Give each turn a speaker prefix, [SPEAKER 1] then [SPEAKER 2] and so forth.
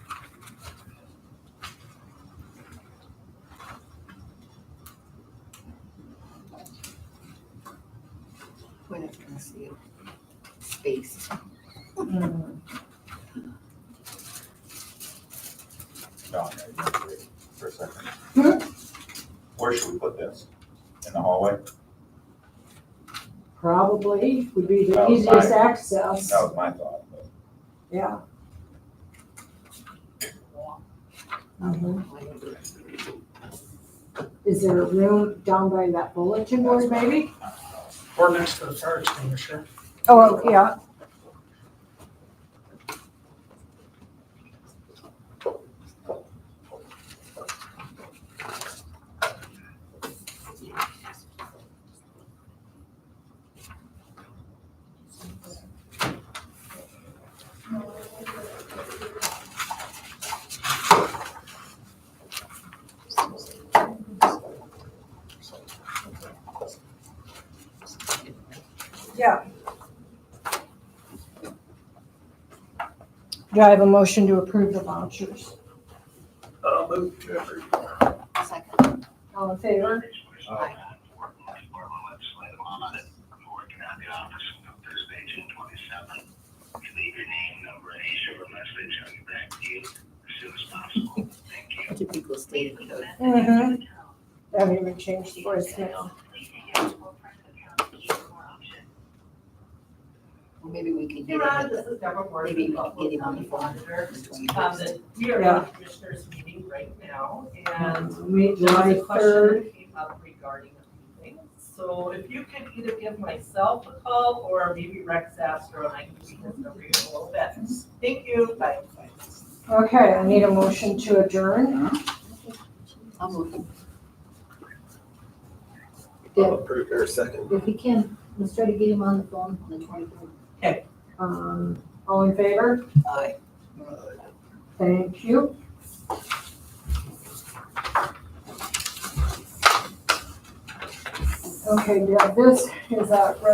[SPEAKER 1] point of conceal space.
[SPEAKER 2] John, I agree for a second. Where should we put this? In the hallway?
[SPEAKER 3] Probably would be the
[SPEAKER 2] Oh,
[SPEAKER 3] easiest
[SPEAKER 2] fine.
[SPEAKER 3] access,
[SPEAKER 2] That was my thought, but
[SPEAKER 3] yeah. Mhm. Is there a room down by that bulletin board maybe?
[SPEAKER 4] Or next to the fire extinguisher.
[SPEAKER 3] Oh, yeah. Yeah. Do I have a motion to approve the vouchers?
[SPEAKER 4] Uh, move to every.
[SPEAKER 1] Second,
[SPEAKER 3] All in favor?
[SPEAKER 1] Aye. two people stated code.
[SPEAKER 3] Mm-hmm. Haven't even changed the voicemail.
[SPEAKER 1] Well, Maybe we can
[SPEAKER 5] Hey,
[SPEAKER 1] get
[SPEAKER 5] Rod,
[SPEAKER 1] it,
[SPEAKER 5] uh, this is Deborah Ford.
[SPEAKER 1] maybe we
[SPEAKER 5] Buffalo
[SPEAKER 1] can get it on
[SPEAKER 5] County
[SPEAKER 1] the phone.
[SPEAKER 5] Auditor.
[SPEAKER 1] for the
[SPEAKER 5] Um,
[SPEAKER 1] 21st.
[SPEAKER 5] the- We are
[SPEAKER 3] Yeah.
[SPEAKER 5] in the commissioners meeting right now
[SPEAKER 1] Mm-hmm.
[SPEAKER 5] and.
[SPEAKER 3] Meet
[SPEAKER 5] there's
[SPEAKER 3] July
[SPEAKER 5] a
[SPEAKER 3] third.
[SPEAKER 5] question that came up regarding a meeting. So if you could either give myself a call or maybe Rex Astro and I can see this over here a little bit. Thank you. Bye.
[SPEAKER 3] Okay, I need a motion to adjourn.
[SPEAKER 1] I'll move.
[SPEAKER 6] I'll approve your second.
[SPEAKER 1] If we can, let's try to get him on the phone on the twenty-third.
[SPEAKER 3] Um, all in favor?
[SPEAKER 1] Aye.
[SPEAKER 3] Thank you. Okay, yeah, this is a